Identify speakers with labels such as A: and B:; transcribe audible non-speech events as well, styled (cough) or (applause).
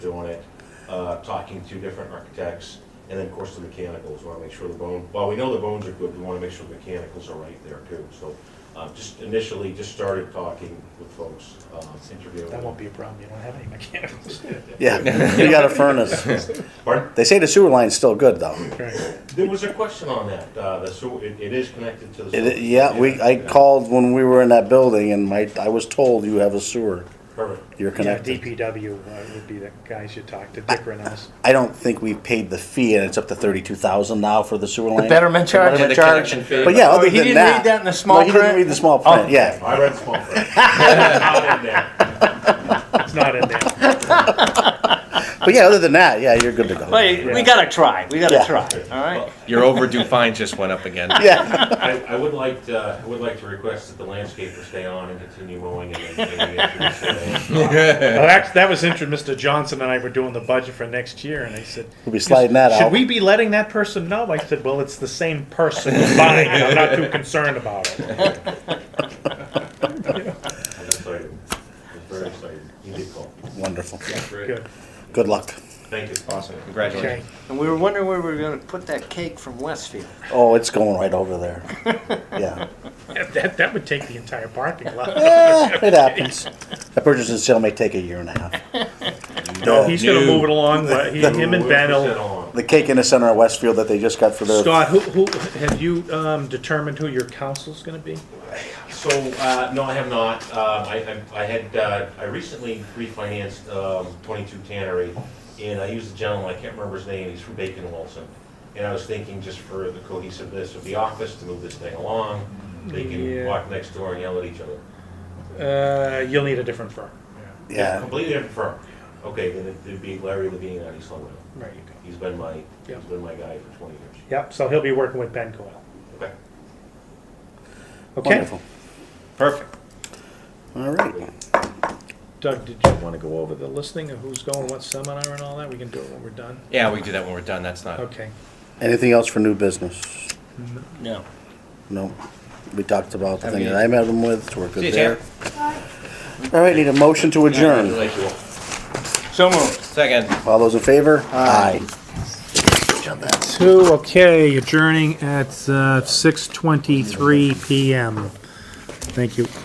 A: doing it, uh, talking to different architects, and then, of course, the mechanicals, wanna make sure the bone, while we know the bones are good, we wanna make sure the mechanicals are right there too, so, uh, just initially, just started talking with folks, um, interviewing.
B: That won't be a problem, you don't have any
A: (laughs)
B: mechanicals.
C: Yeah, we got a furnace.
A: Pardon?
C: They say the sewer line's still good though.
B: Right.
A: There was a question on that, uh, the sewer, it, it is connected to the. sewer.
C: It, yeah, we, I
A: Yeah.
C: called when we were in that building and my, I was told you have a sewer,
A: Perfect.
C: you're
B: Yeah,
C: connected.
B: DPW uh, would be the guys you talk to, Dick Reynolds.
C: I don't think we paid the fee and it's up to thirty-two thousand now for the sewer line.
D: betterment charge?
C: Betterment
D: Yeah, the
C: charge.
D: connection fee.
C: But yeah,
D: Oh,
C: other
D: he
C: than
D: didn't
C: that.
D: read that in the small
C: No, he didn't
D: print? Oh.
C: read the small print, yeah.
A: I read small
C: (laughs)
A: print. Out in there.
B: It's not in there.
C: But yeah, other than that, yeah, you're good to go.
E: Wait, we gotta try. We gotta
C: Yeah.
E: try. All right.
D: Your overdue fine just went up again.
C: (laughs) Yeah,
A: I, I would like, to- I would like to request that the landscaper stay on and continue mowing and then maybe introduce the-
B: Well, that's, that was interesting, Mr. Johnson and I were doing the budget for next year, and I said,
C: we'll be sliding that
B: should
C: out.
B: we be letting that person know? I said, well, it's the same person buying it, I'm not too concerned about it.
A: I'm excited. I'm very excited. You did call.
C: Wonderful.
B: Good,
C: Good luck.
A: Thank you. Awesome.
B: okay.
D: Congratulations.
E: And we were wondering where we were gonna put that cake from Westfield.
C: Oh, it's going right over
D: (laughs)
C: there. Yeah. (laughs)
B: That, that would take the entire parking lot.
C: Eh, it happens. The purchase and sale may take a year and a half.
B: No, he's gonna
D: No.
B: move it along, but he, him and Ben
A: Sit
B: will.
A: on.
C: The cake in the center of Westfield that they just got for their
B: Scott, who, who, have you, um, determined who your counsel's gonna be?
A: So, uh, no, I have not. Um, I, I I had, uh, I recently refinanced um, 22 Tannery, and I used a gentleman, I can't remember his name, he's from Bacon Wilson. And I was thinking just for the cohesiveness of the office, to move this thing along, they can
B: Yeah.
A: walk next door and yell at each other.
B: Uh, you'll need a different firm.
C: yeah.
A: Completely different firm. Okay, then it'd be Larry Levine out of East Long
B: Right, you go.
A: He's been my,
B: Yeah.
A: he's been my guy for 20 years.
B: Yep, so he'll be working with Ben Coyle.
A: Okay.
B: Okay,
C: Wonderful.
D: Perfect.
C: All right.
B: Doug, did you want to go over the listing of who's going, what seminar and all that? We can do it when we're done.
D: Yeah, we can do that when we're done. That's not.
B: Okay.
C: Anything else for new business?
E: No.
C: No. We talked about the
D: Have
C: thing
D: we-
C: that I met them with, so we're
D: See
C: good
D: you,
C: there. All right, need a motion to adjourn.
D: So moved. Second.
C: All those in favor? Aye.
B: Two, okay, uh, adjourning at six twenty-three PM. Thank you.